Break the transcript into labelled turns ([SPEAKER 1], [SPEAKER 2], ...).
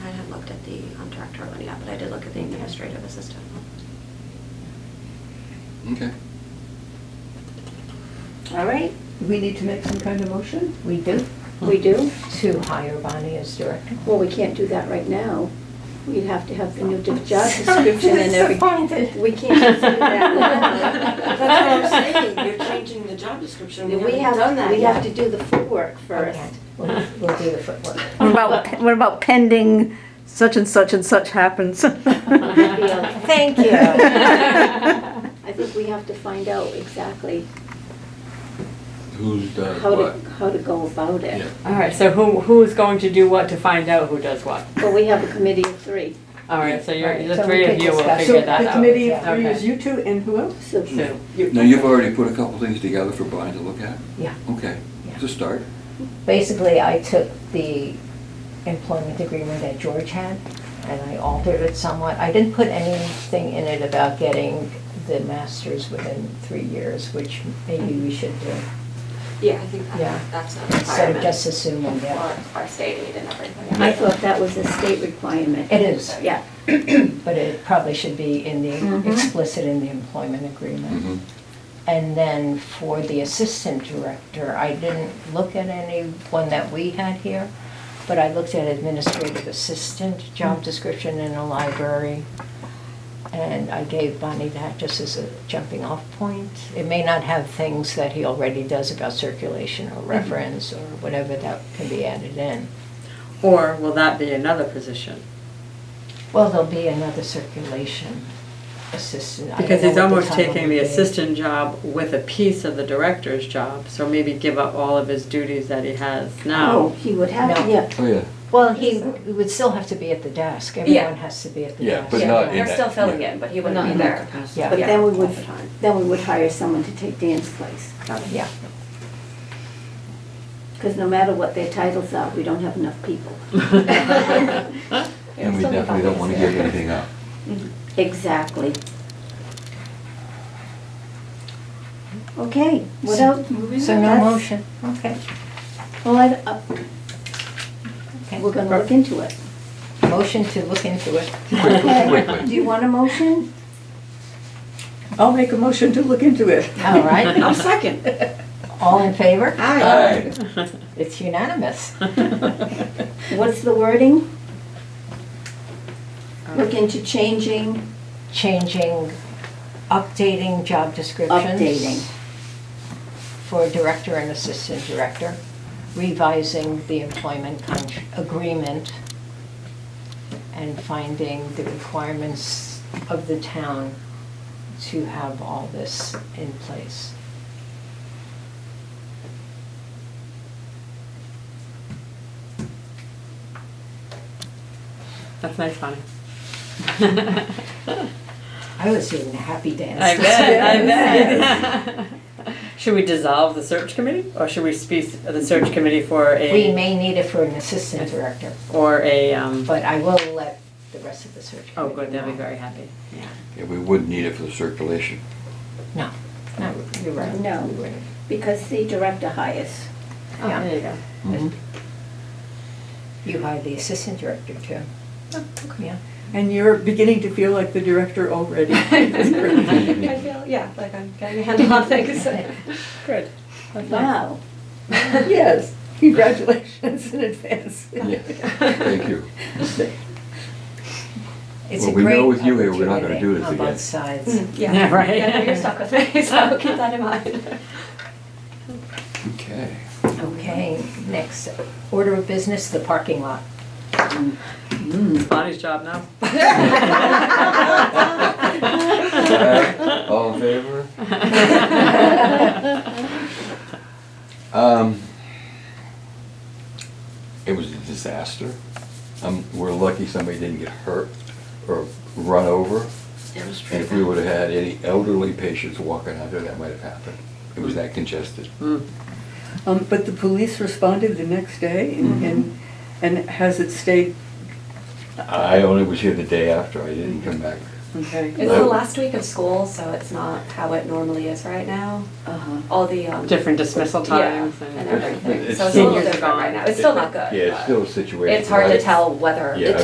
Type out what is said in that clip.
[SPEAKER 1] looked at the um, director one yet, but I did look at the administrative assistant.
[SPEAKER 2] Okay.
[SPEAKER 3] All right,
[SPEAKER 4] We need to make some kind of motion?
[SPEAKER 5] We do,
[SPEAKER 3] we do.
[SPEAKER 5] to hire Bonnie as director.
[SPEAKER 3] Well, we can't do that right now. We'd have to have the new de- job description and everything.
[SPEAKER 5] Disappointed.
[SPEAKER 3] We can't do that now.
[SPEAKER 1] That's what I'm
[SPEAKER 5] saying.
[SPEAKER 1] You're changing the job description.
[SPEAKER 3] We have, we have to do the footwork first.
[SPEAKER 5] Okay, We'll we'll do the footwork.
[SPEAKER 6] What about, what about pending such and such and such happens?
[SPEAKER 5] Thank you.
[SPEAKER 3] I think we have to find out exactly
[SPEAKER 2] Who's done
[SPEAKER 3] how
[SPEAKER 2] Uh, what?
[SPEAKER 3] to, how to go about it.
[SPEAKER 2] Yeah.
[SPEAKER 7] All right, so who, who is going to do what to find out who does what?
[SPEAKER 3] But we have a committee of three,
[SPEAKER 7] All right, so you're,
[SPEAKER 5] Right,
[SPEAKER 7] the
[SPEAKER 5] so
[SPEAKER 7] three
[SPEAKER 5] we
[SPEAKER 7] of
[SPEAKER 5] could
[SPEAKER 7] you will
[SPEAKER 5] discuss.
[SPEAKER 7] figure
[SPEAKER 4] So
[SPEAKER 7] that
[SPEAKER 4] the
[SPEAKER 7] out.
[SPEAKER 4] committee of
[SPEAKER 5] yeah.
[SPEAKER 4] three is
[SPEAKER 7] Okay.
[SPEAKER 4] you two and who else?
[SPEAKER 3] so
[SPEAKER 7] So,
[SPEAKER 4] You-
[SPEAKER 2] Now, you've already put a couple things together for Brian to look at?
[SPEAKER 5] Yeah.
[SPEAKER 2] Okay,
[SPEAKER 5] Yeah.
[SPEAKER 2] it's a start.
[SPEAKER 5] Basically, I took the employment agreement that George had, and I altered it somewhat. I didn't put anything in it about getting the masters within three years, which maybe we should do.
[SPEAKER 1] Yeah, I think
[SPEAKER 5] Yeah.
[SPEAKER 1] that- that's a
[SPEAKER 5] So
[SPEAKER 1] requirement
[SPEAKER 5] just assume we get it.
[SPEAKER 1] for our state aid and everything.
[SPEAKER 3] I thought that was a state requirement.
[SPEAKER 5] It is,
[SPEAKER 3] Yeah,
[SPEAKER 5] but it probably should be in the, explicit in the employment agreement.
[SPEAKER 2] Mhm.
[SPEAKER 5] And then for the assistant director, I didn't look at any one that we had here, but I looked at administrative assistant job description in the library. And I gave Bonnie that just as a jumping off point. It may not have things that he already does about circulation or reference or whatever that can be added in.
[SPEAKER 7] or will that be another position?
[SPEAKER 5] Well, there'll be another circulation assistant. I don't
[SPEAKER 7] Because
[SPEAKER 5] know
[SPEAKER 7] he's
[SPEAKER 5] what the
[SPEAKER 7] almost
[SPEAKER 5] title
[SPEAKER 7] taking
[SPEAKER 5] will
[SPEAKER 7] the
[SPEAKER 5] be.
[SPEAKER 7] assistant job with a piece of the director's job, so maybe give up all of his duties that he has
[SPEAKER 3] oh,
[SPEAKER 7] now.
[SPEAKER 3] he would have,
[SPEAKER 5] No.
[SPEAKER 3] yeah,
[SPEAKER 2] Oh, yeah,
[SPEAKER 5] Well, he would still have to be at the desk. Everyone has to be at the
[SPEAKER 2] Yeah,
[SPEAKER 5] desk.
[SPEAKER 2] but not in-
[SPEAKER 6] We're still filling in, but he wouldn't be there.
[SPEAKER 5] Yeah.
[SPEAKER 3] but then we would,
[SPEAKER 1] All the time.
[SPEAKER 3] then we would hire someone to take Dan's place.
[SPEAKER 5] Yeah,
[SPEAKER 3] Because no matter what their titles are, we don't have enough people.
[SPEAKER 2] and we definitely don't want to give anything up.
[SPEAKER 3] Exactly. Okay, what else?
[SPEAKER 5] so no
[SPEAKER 3] That's-
[SPEAKER 5] motion, okay.
[SPEAKER 3] Well, I, uh, we're gonna look into it.
[SPEAKER 5] Motion to look into it.
[SPEAKER 3] Okay,
[SPEAKER 2] quickly.
[SPEAKER 3] do you want a motion?
[SPEAKER 4] I'll make a motion to look into it.
[SPEAKER 5] All right,
[SPEAKER 7] I'm second.
[SPEAKER 5] all in favor?
[SPEAKER 2] Aye.
[SPEAKER 5] It's unanimous.
[SPEAKER 3] What's the wording? Look into changing,
[SPEAKER 5] Changing, updating job descriptions.
[SPEAKER 3] Updating.
[SPEAKER 5] For director and assistant director, revising the employment con- agreement, and finding the requirements of the town to have all this in place.
[SPEAKER 7] That's nice, Bonnie.
[SPEAKER 5] I was doing the happy dance.
[SPEAKER 7] I bet, I bet. Should we dissolve the search committee, or should we speak the search committee for
[SPEAKER 5] We
[SPEAKER 7] a,
[SPEAKER 5] may need it for an assistant director,
[SPEAKER 7] or a, um,
[SPEAKER 5] but I will let the rest of the search
[SPEAKER 7] oh,
[SPEAKER 5] committee
[SPEAKER 7] good, they'll be
[SPEAKER 5] know.
[SPEAKER 7] very happy. Yeah.
[SPEAKER 2] Yeah, we would need it for the circulation.
[SPEAKER 5] No, no, you're right.
[SPEAKER 3] No.
[SPEAKER 5] you wouldn't.
[SPEAKER 3] because the director hires.
[SPEAKER 7] Oh,
[SPEAKER 5] Yeah.
[SPEAKER 7] there you go.
[SPEAKER 2] Mm-hmm.
[SPEAKER 5] You hired the assistant director too. Yeah.
[SPEAKER 4] And you're beginning to feel like the director already. That's great.
[SPEAKER 1] I feel, yeah, like I'm getting a handle on things.
[SPEAKER 7] Good.
[SPEAKER 3] Wow,
[SPEAKER 4] Yes, congratulations in advance.
[SPEAKER 2] Yeah, thank you.
[SPEAKER 5] It's
[SPEAKER 2] Well,
[SPEAKER 5] a
[SPEAKER 2] we know
[SPEAKER 5] great
[SPEAKER 2] with you here, we're not gonna
[SPEAKER 5] opportunity
[SPEAKER 2] do this
[SPEAKER 5] On
[SPEAKER 2] again.
[SPEAKER 5] both sides.
[SPEAKER 7] Yeah, right.
[SPEAKER 1] Yeah, You're stuck with me, so keep that in mind.
[SPEAKER 2] Okay.
[SPEAKER 5] Okay, next, order of business, the parking lot.
[SPEAKER 7] Bonnie's job now.
[SPEAKER 2] Aye. All in favor? Um, It was a disaster. Um, We're lucky somebody didn't get hurt or run over.
[SPEAKER 1] It was
[SPEAKER 2] And if we would have had any elderly patients walking out there, that might have happened. It was that congested.
[SPEAKER 1] Mm.
[SPEAKER 4] Um, but the police responded the next day and, and, and has it stayed,
[SPEAKER 2] I only was here the day after, I didn't come back.
[SPEAKER 4] okay?
[SPEAKER 1] It's the last week of school, so it's not how it normally is right now.
[SPEAKER 3] uh-huh.
[SPEAKER 1] All the, um.
[SPEAKER 7] Different dismissal
[SPEAKER 1] Yeah,
[SPEAKER 7] times
[SPEAKER 1] and
[SPEAKER 7] and.
[SPEAKER 1] everything.
[SPEAKER 2] It's
[SPEAKER 1] So it's a little
[SPEAKER 7] still-
[SPEAKER 1] different right now. It's still not good.
[SPEAKER 2] Yeah, it's
[SPEAKER 1] but
[SPEAKER 2] still a situation.
[SPEAKER 1] It's hard to
[SPEAKER 2] right?
[SPEAKER 1] tell whether
[SPEAKER 2] Yeah,
[SPEAKER 1] it's